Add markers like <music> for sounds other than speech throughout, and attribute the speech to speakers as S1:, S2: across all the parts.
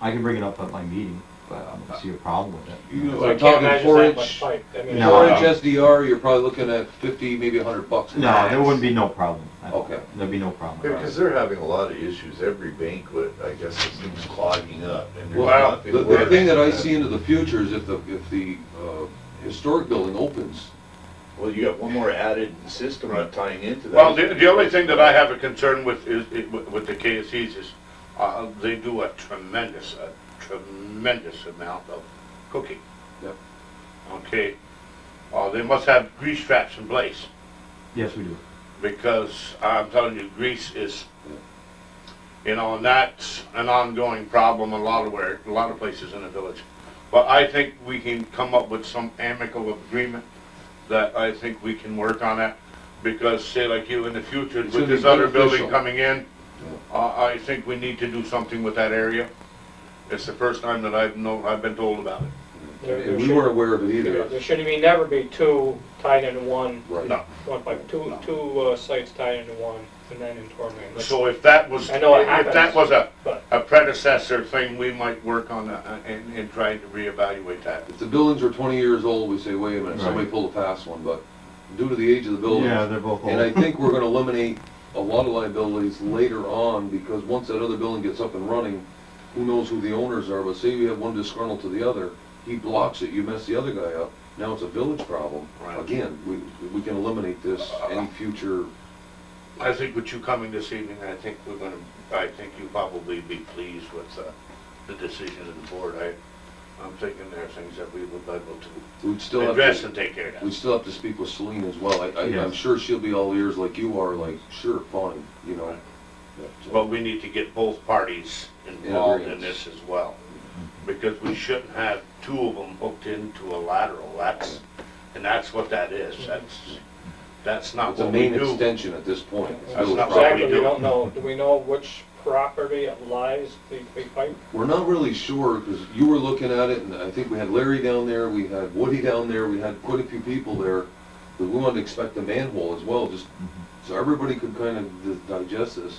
S1: I can bring it up at my meeting, but I don't see a problem with
S2: You
S1: it.
S2: know,
S3: So I
S2: I'm
S3: can't
S2: talking
S3: imagine
S2: four
S3: that much
S2: inch,
S3: pipe. I mean,
S1: No,
S2: four
S1: I don't.
S2: inch SDR, you're probably looking at fifty, maybe a hundred bucks.
S1: uh, No, there wouldn't be no problem. I-
S2: Okay.
S1: There'd be no problem.
S4: Yeah, because they're having a lot of issues, every banquet, I guess, it seems clogging up, and there's
S2: Well,
S4: nothing.
S2: the, the
S4: working.
S2: thing that I see into the future is if the, if the, uh, historic building opens,
S4: Well, you got one more added system tying into that.
S5: Well, the, the only thing that I have a concern with is, i- with with the KSEs is, uh, they do a tremendous, a tremendous amount of cooking.
S2: Yep.
S5: Okay, uh, they must have grease traps in place,
S1: Yes, we do.
S5: because I'm telling you, grease is, you know, and that's an ongoing problem a lot of where, a lot of places in the village. But I think we can come up with some amicable agreement that I think we can work on that. Because say like you, in the future,
S2: It's
S5: with
S2: gonna
S5: this
S2: be
S5: other building
S2: beneficial.
S5: coming in, uh, I, I think we need to do something with that area. It's the first time that I've known, I've been told about it.
S2: and
S3: there- there
S2: we
S3: should-
S2: weren't aware of it
S3: There there
S2: either.
S3: should be, never be two tied into one,
S2: Right.
S5: No.
S3: one pipe, two, two uh, sites tied into one, and then in Tormain. Let's-
S5: So if that was,
S3: I know it
S5: if that
S3: happens,
S5: was a,
S3: but-
S5: a predecessor thing, we might work on that uh, and, and try to reevaluate that.
S2: If the buildings are twenty years old, we say, wait a minute, somebody
S1: Right.
S2: pulled a fast one, but due to the age of the building.
S1: Yeah, they're both
S2: And I
S1: old.
S2: think we're gonna eliminate a lot of liabilities later on, because once that other building gets up and running, who knows who the owners are, but say you have one disgruntled to the other, he blocks it, you mess the other guy up, now it's a village problem.
S5: Right.
S2: Again, we, we can eliminate this, any future,
S5: I think with you coming this evening, I think we're gonna, I think you probably be pleased with, uh, the decision of the board. I, I'm thinking there are things that we would be able
S2: we'd still
S5: to
S2: have
S5: address
S2: to,
S5: and take care of that.
S2: we'd still have to speak with Celine as well, I, I, I'm
S1: Yes.
S2: sure she'll be all ears like you are, like, sure, fine, you know. But, uh,
S5: But we need to get both parties involved in
S2: agreements.
S5: this as well, because we shouldn't have two of them hooked into a lateral, that's, and that's what that is, that's, that's not
S2: It's a
S5: what we
S2: main
S5: do.
S2: extension at this point. It's
S5: That's
S2: village
S5: not
S2: property.
S3: Exactly, we
S5: do.
S3: don't know, do we know which property it lies, the big pipe?
S2: We're not really sure, because you were looking at it, and I think we had Larry down there, we had Woody down there, we had quite a few people there. But we wanted to expect a manhole as well, just so everybody could kind of di- digest this.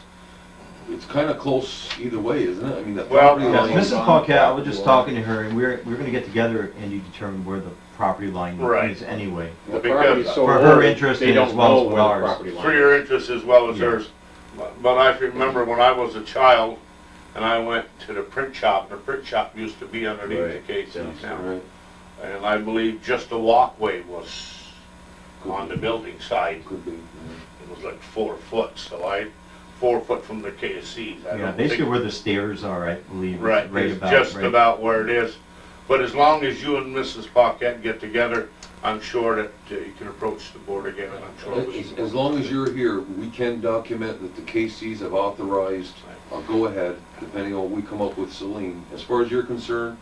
S2: It's kind of close either way, isn't it? I mean, the
S5: Well,
S2: property
S1: Yeah,
S2: line.
S4: Yes,
S1: Mrs. Paquette, I was just talking to her, and we we're, we we're gonna get together and you determine where the property line
S5: Right.
S1: is anyway.
S6: The
S5: Because-
S6: property's so
S1: For her
S6: old,
S1: interest
S6: they
S1: and
S6: don't
S1: as well as
S6: know
S1: for
S6: where the
S1: ours.
S6: property line
S5: For
S6: is.
S5: your interest as well as
S1: Yeah.
S5: hers, But- but I remember when I was a child, and I went to the print shop, the print shop used to be underneath
S4: Right,
S5: the KC
S4: yes,
S5: now.
S2: Right,
S5: And I believe just the walkway was on the building side,
S2: could be.
S5: it was like four foot, so I, four foot from the KSCs. I
S1: Yeah,
S5: don't
S1: basically
S5: think-
S1: where the stairs are, I believe. is
S5: Right, it's
S1: about-
S5: just
S1: right-
S5: about where it is. But as long as you and Mrs. Paquette get together, I'm sure that uh, you can approach the board again, and I'm sure. we
S2: As
S5: can-
S2: as long as you're here, we can document that the KCs have authorized a go-ahead, depending on what we come up with Celine. As far as you're concerned,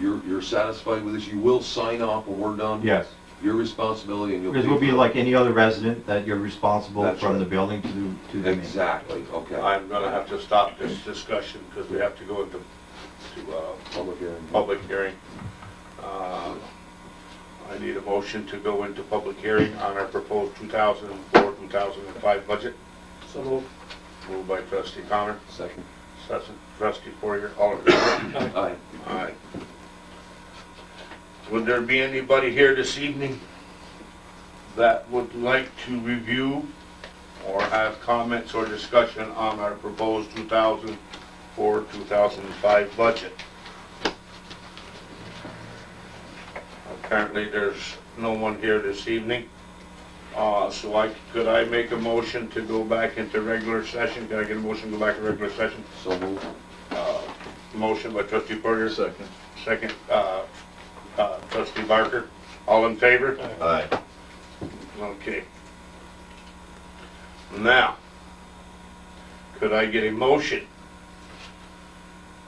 S2: you're, you're satisfied with this, you will sign off when we're done?
S1: Yes,
S2: Your responsibility and you'll.
S1: because
S2: pay
S1: we'll be
S2: for it.
S1: like any other resident that you're responsible
S2: That's
S1: from
S2: right.
S1: the building to the, to the main.
S2: Exactly, okay.
S5: I'm gonna have to stop this discussion, because we have to go into, to, uh,
S2: Public hearing.
S4: Oh.
S5: public hearing. Uh, I need a motion to go into public hearing on our proposed 2004, 2005 budget.
S3: So move.
S5: Moved by trustee Connor,
S2: Second.
S5: second trustee Poirier, all in favor?
S2: Aye.
S5: Aye. Would there be anybody here this evening that would like to review or have comments or discussion on our proposed 2004, 2005 budget? Apparently, there's no one here this evening. Uh, so I, could I make a motion to go back into regular session? Can I get a motion to go back to regular session?
S2: So moved.
S5: Uh, Motion by trustee Berger,
S4: Second.
S5: Second, uh, uh, trustee Barker, all in favor?
S4: Aye.
S5: Okay. Now, could I get a motion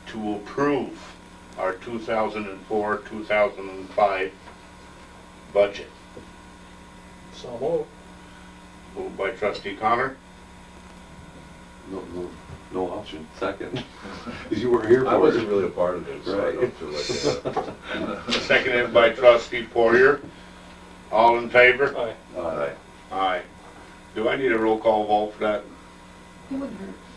S5: to approve our two thousand and four, two thousand and five budget?
S3: So move.
S5: Moved by trustee Connor,
S2: No, no, no option.
S4: <laughs>
S2: Second. Because you weren't here
S4: I
S2: for
S4: wasn't
S2: it.
S4: really a part of it, so I don't feel
S6: <laughs>
S4: like that.
S5: seconded by trustee Poirier, all in favor?
S3: Aye.
S2: Aye.
S4: Aye.
S5: Aye. Do I need a roll call vote for that?
S7: It wouldn't hurt.